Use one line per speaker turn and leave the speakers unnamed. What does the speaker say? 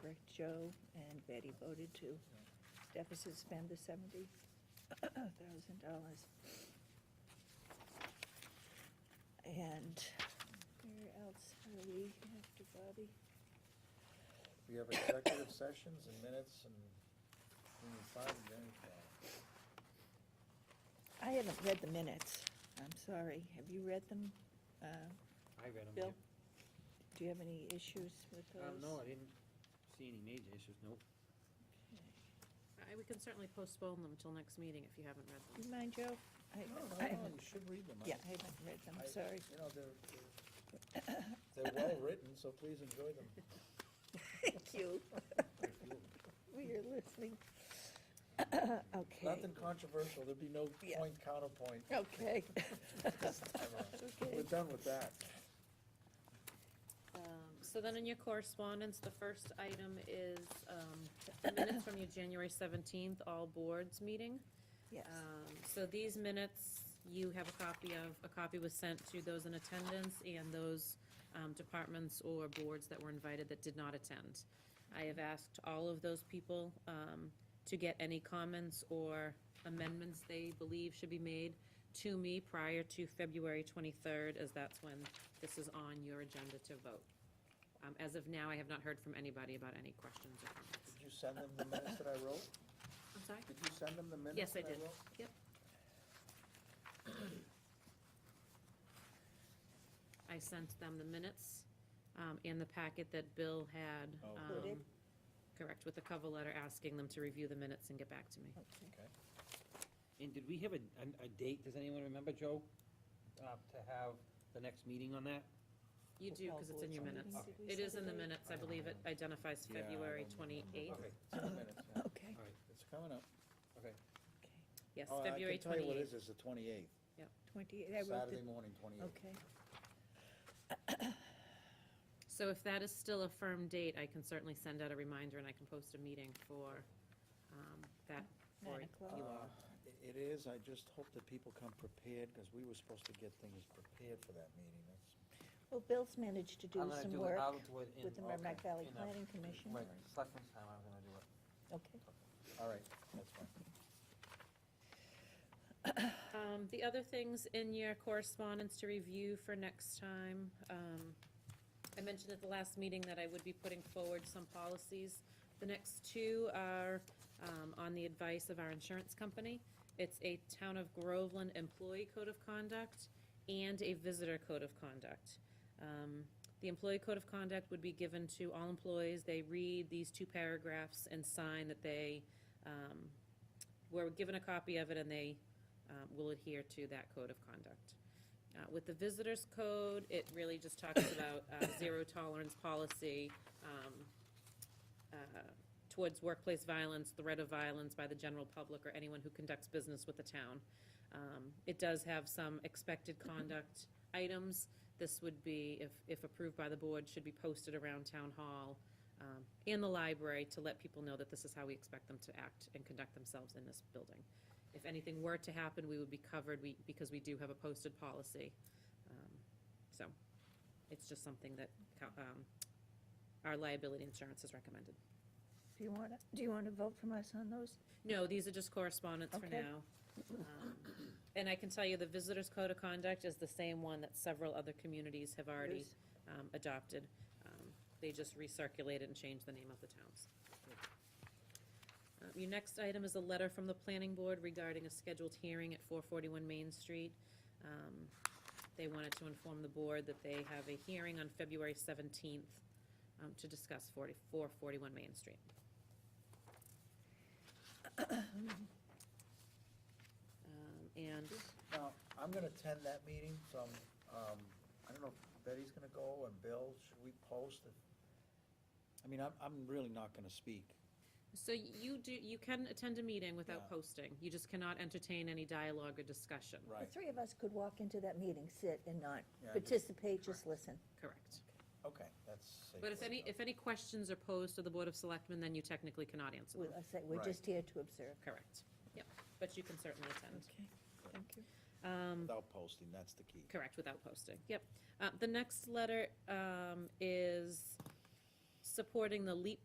were Joe and Betty voted to deficit spend the seventy thousand dollars. And where else are we after Bobby?
We have executive sessions and minutes and we need five minutes.
I haven't read the minutes. I'm sorry. Have you read them? Uh,
I read them.
Bill? Do you have any issues with those?
Um, no, I didn't see any major issues, nope.
I, we can certainly postpone them till next meeting if you haven't read
Do
them.
you mind, Joe? I- I
No, no, no,
haven't-
you should read them. I-
Yeah, I haven't read them,
I-
sorry.
You know, they're, they're- they're well-written, so please enjoy them.
Thank you. We are listening. Okay,
Nothing controversial, there'd be no
Yeah.
point counterpoint
okay.
this time around. We're
Okay.
done with that.
Um, So then in your correspondence, the first item is, um, the minutes from your January seventeenth, all boards meeting.
Yes,
Um, So these minutes, you have a copy of, a copy was sent to those in attendance and those um, departments or boards that were invited that did not attend. I have asked all of those people um, to get any comments or amendments they believe should be made to me prior to February 23rd, as that's when this is on your agenda to vote. Um, As of now, I have not heard from anybody about any questions or comments.
Did you send them the minutes that I wrote?
I'm sorry?
Did you send them the minutes
Yes, I
that I
did.
wrote?
Yep. I sent them the minutes um, and the packet that Bill had.
Oh.
um,
Included?
Correct, with the cover letter asking them to review the minutes and get back to me.
okay.
Okay.
And did we have a, a, a date, does anyone remember, Joe? Uh, to have the next meeting on that?
You do, because it's in your minutes.
Okay.
It is in the minutes, I believe it identifies
Yeah, I
February
don't Uh, remember.
28th.
Okay.
It's in the minutes, yeah.
Okay,
All right,
It's coming up.
okay.
okay.
Yes,
Oh, I
February
can tell you what it is,
28th.
it's the twenty-eighth,
Twenty-eight, I wrote it,
Saturday morning, twenty-eighth.
okay.
So if that is still a firm date, I can certainly send out a reminder and I can post a meeting for um, that. for
Nine o'clock.
you all.
Uh, i- It is, I just hope that people come prepared, because we were supposed to get things prepared for that meeting. That's-
Well, Bill's managed to do
I'm gonna
some
do it, I'll
work
do it in.
with the Merrimack Valley
in a-
Planning Commission,
Right, selectmen's time, I'm gonna do it.
okay.
All right, that's fine.
Um, the other things in your correspondence to review for next time, um, I mentioned at the last meeting that I would be putting forward some policies. The next two are, um, on the advice of our insurance company. It's a Town of Groveland Employee Code of Conduct and a Visitor Code of Conduct. Um, the Employee Code of Conduct would be given to all employees. They read these two paragraphs and sign that they, um, were given a copy of it and they um, will adhere to that code of conduct. Uh, With the visitors code, it really just talks about uh, zero tolerance policy um, uh, towards workplace violence, threat of violence by the general public or anyone who conducts business with the town. Um, It does have some expected conduct items. This would be, if, if approved by the board, should be posted around town hall um, and the library to let people know that this is how we expect them to act and conduct themselves in this building. If anything were to happen, we would be covered, we, because we do have a posted policy. Um, So, it's just something that, co- um, our liability insurance has recommended.
Do you want, to? do you want to vote from us on those?
No, these are just correspondence for
Okay.
now. Um, And I can tell you, the Visitors Code of Conduct is the same one that several other communities have already
Yes.
um, adopted. Um, They just recirculate it and change the name of the towns. Um, Your next item is a letter from the planning board regarding a scheduled hearing at 441 Main Street. Um, They wanted to inform the board that they have a hearing on February 17th um, to discuss 40 441 Main Street. Um, And
Now, I'm gonna attend that meeting from, um, I don't know if Betty's gonna go and Bill, should we post? it? I mean, I'm, I'm really not gonna speak.
So you do, you can attend a meeting
Yeah.
without posting. You just cannot entertain any dialogue or discussion.
The three of us could walk into that meeting, sit and not
Yeah, just-
participate, just listen.
Correct.
Okay, that's. safe
But if
way to
any,
go.
if any questions are posed to the Board of Selectmen, then you technically cannot answer
We're,
them.
I say, we're
Right.
just here to observe.
Correct. Yep, but you can certainly attend. Um,
Okay, thank you.
Without posting, that's the key.
Correct, without posting, yep. Uh, The next letter um, is supporting the LEAP